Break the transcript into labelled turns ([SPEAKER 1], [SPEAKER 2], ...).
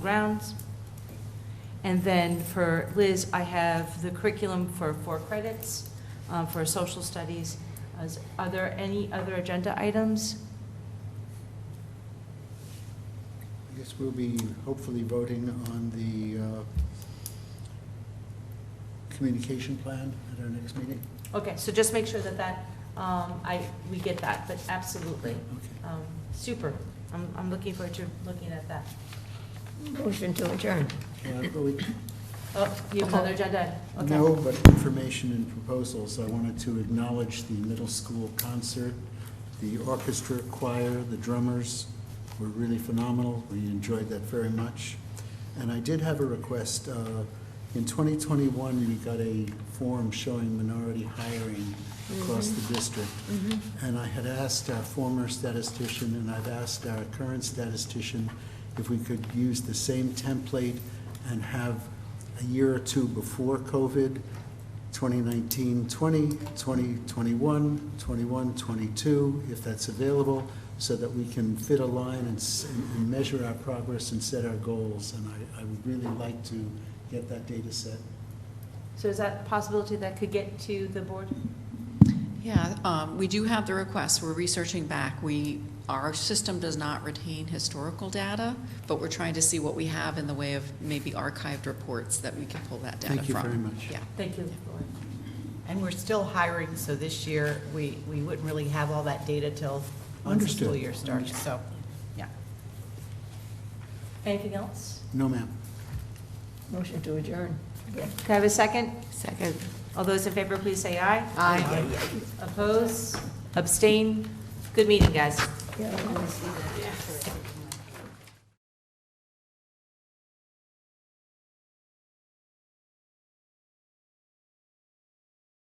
[SPEAKER 1] rounds. And then for Liz, I have the curriculum for four credits uh, for social studies. Is- Are there any other agenda items?
[SPEAKER 2] I guess we'll be hopefully voting on the uh, communication plan at our next meeting.
[SPEAKER 1] Okay, so just make sure that that, um, I, we get that, but absolutely.
[SPEAKER 2] Okay.
[SPEAKER 1] Um, Super. I'm, I'm looking forward to looking at that.
[SPEAKER 3] Motion to adjourn.
[SPEAKER 2] Well, I've really-
[SPEAKER 1] Oh, you have another agenda? item. Okay.
[SPEAKER 2] No, but information and proposals. I wanted to acknowledge the middle school concert, the orchestra, choir, the drummers were really phenomenal. We enjoyed that very much. And I did have a request. uh, In 2021, we got a form showing minority hiring across the district. And I had asked our former statistician, and I've asked our current statistician, if we could use the same template and have a year or two before COVID, 2019, 20, 20, 21, 21, 22, if that's available, so that we can fit a line and s- and measure our progress and set our goals. And I- I would really like to get that data set.
[SPEAKER 1] So is that a possibility that could get to the board?
[SPEAKER 4] Yeah, um, we do have the requests, we're researching back. We, our system does not retain historical data, but we're trying to see what we have in the way of maybe archived reports that we can pull that data from.
[SPEAKER 2] Thank you very much.
[SPEAKER 4] Yeah.
[SPEAKER 1] Thank you, Lauren.
[SPEAKER 5] And we're still hiring, so this year, we, we wouldn't really have all that data till once the
[SPEAKER 2] Understood.
[SPEAKER 5] school year starts, so, yeah.
[SPEAKER 1] Anything else?
[SPEAKER 2] No, ma'am.
[SPEAKER 3] Motion to adjourn.
[SPEAKER 1] Can I have a second?
[SPEAKER 3] Second.
[SPEAKER 1] All those in favor, please say aye.
[SPEAKER 3] Aye.
[SPEAKER 1] Oppose? Abstain? Good meeting, guys.
[SPEAKER 3] Yeah.